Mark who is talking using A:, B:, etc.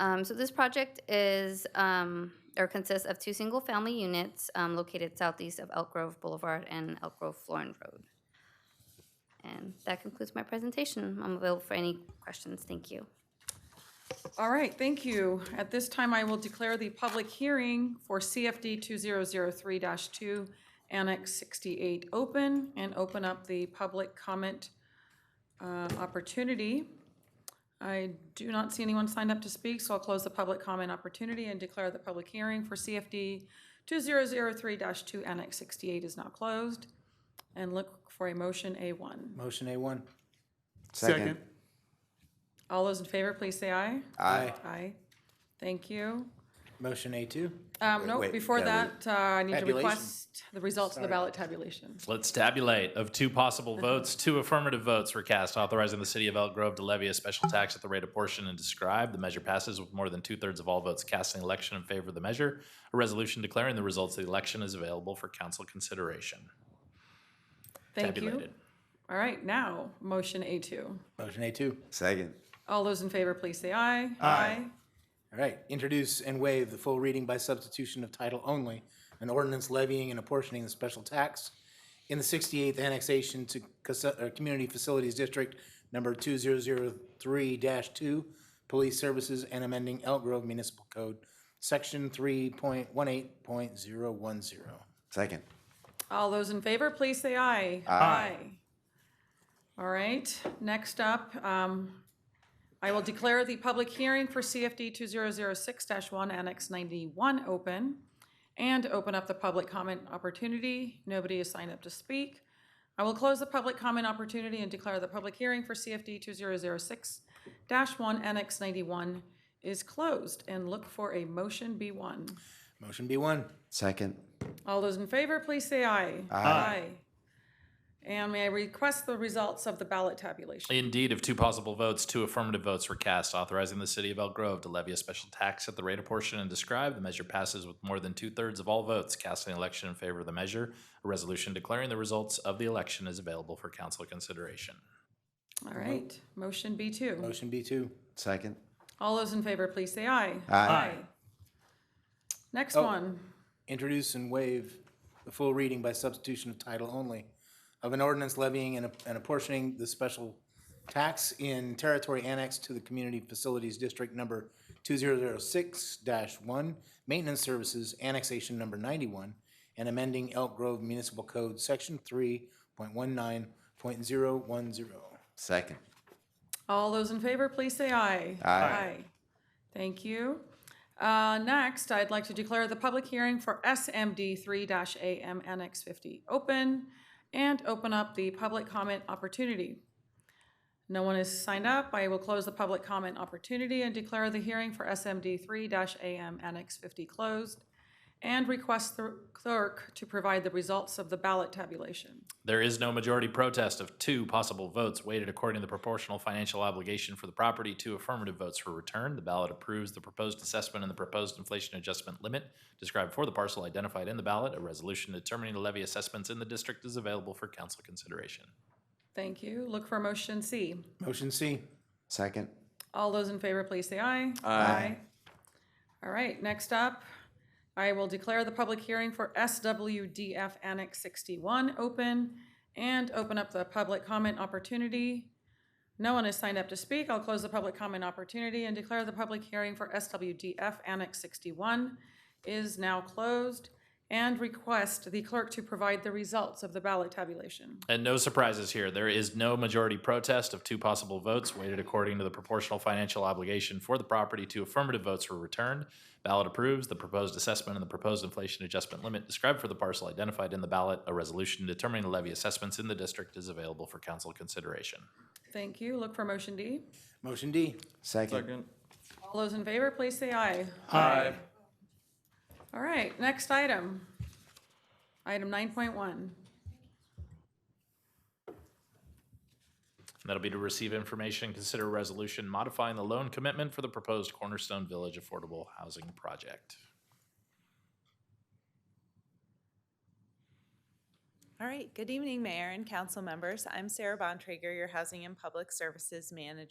A: Um, So this project is, um, or consists of two single-family units um, located southeast of Elk Grove Boulevard and Elk Grove Florin Road. And that concludes my presentation. I'm available for any questions. Thank you.
B: All right, thank you. At this time, I will declare the public hearing for CFD 2003-2, Annex 68, open and open up the public comment uh, opportunity. I do not see anyone signed up to speak, so I'll close the public comment opportunity and declare the public hearing for CFD 2003-2, Annex 68 is now closed. And look for a motion A1.
C: Motion A1.
D: Second.
B: All those in favor, please say aye.
D: Aye.
B: Aye. Thank you.
C: Motion A2.
B: Um, no,
D: wait,
B: before
D: gotta
B: that, uh, I need to
C: Tabulation.
B: request the results of the ballot tabulation.
E: Let's tabulate. Of two possible votes, two affirmative votes were cast authorizing the city of Elk Grove to levy a special tax at the rate apportioned and described. The measure passes with more than two-thirds of all votes cast in the election in favor of the measure. A resolution declaring the results of the election is available for council consideration.
B: Thank you.
E: Tabulated.
B: All right, now, motion A two.
C: Motion A2.
D: Second.
B: All those in favor, please say aye.
C: All right. Introduce and waive the full reading by substitution of title only, an ordinance levying and apportioning the special tax in the 68th annexation to Cas- uh, Community Facilities District Number 2003-2, Police Services and amending Elk Grove Municipal Code, Section 3.18.010.
D: Second.
B: All those in favor, please say aye. Aye. All right, next up, um, I will declare the public hearing for CFD two zero zero six one, Annex ninety-one open and open up the public comment opportunity. Nobody is signed up to speak. I will close the public comment opportunity and declare the public hearing for CFD two zero zero six one, Annex ninety-one is closed and look for a motion B one.
C: Motion B1.
D: Second.
B: All those in favor, please say aye. Aye. And may I request the results of the ballot tabulation?
E: Indeed, of two possible votes, two affirmative votes were cast authorizing the city of Elk Grove to levy a special tax at the rate apportioned and described. The measure passes with more than two-thirds of all votes cast in the election in favor of the measure. A resolution declaring the results of the election is available for council consideration.
B: All right, motion B two.
C: Motion B2.
D: Second.
B: All those in favor, please say aye.
D: Aye.
B: Next one,
C: introduce and waive the full reading by substitution of title only of an ordinance levying and and apportioning the special tax in territory annexed to the Community Facilities District Number 2006-1, Maintenance Services Annexation Number 91, and amending Elk Grove Municipal Code, Section 3.19.010.
D: Second.
B: all those in favor, please say aye. Aye. Thank you. Uh, next, I'd like to declare the public hearing for SMD three AM Annex fifty open and open up the public comment opportunity. No one is signed up. I will close the public comment opportunity and declare the hearing for SMD three AM Annex fifty closed and request the clerk to provide the results of the ballot tabulation.
E: There is no majority protest of two possible votes weighted according to the proportional financial obligation for the property. Two affirmative votes were returned. The ballot approves the proposed assessment and the proposed inflation adjustment limit described for the parcel identified in the ballot. A resolution determining the levy assessments in the district is available for council consideration.
B: Thank you. Look for motion C.
C: Motion C.
D: Second.
B: All those in favor, please say aye. Aye. All right, next up, I will declare the public hearing for SWDF Annex 61 open and open up the public comment opportunity. No one has signed up to speak. I'll close the public comment opportunity and declare the public hearing for SWDF Annex 61 is now closed and request the clerk to provide the results of the ballot tabulation.
E: And no surprises here. There is no majority protest of two possible votes weighted according to the proportional financial obligation for the property. Two affirmative votes were returned. Ballot approves the proposed assessment and the proposed inflation adjustment limit described for the parcel identified in the ballot. A resolution determining the levy assessments in the district is available for council consideration.
B: Thank you. Look for motion D.
C: Motion D.
D: Second.
B: All those in favor, please say aye.
D: Aye.
B: All right, next item. Item nine point one.
E: And that'll be to receive information, consider a resolution modifying the loan commitment for the proposed Cornerstone Village Affordable Housing Project.
F: All right, good evening, Mayor and council members. I'm Sarah Bontrager, your Housing and Public Services Manager.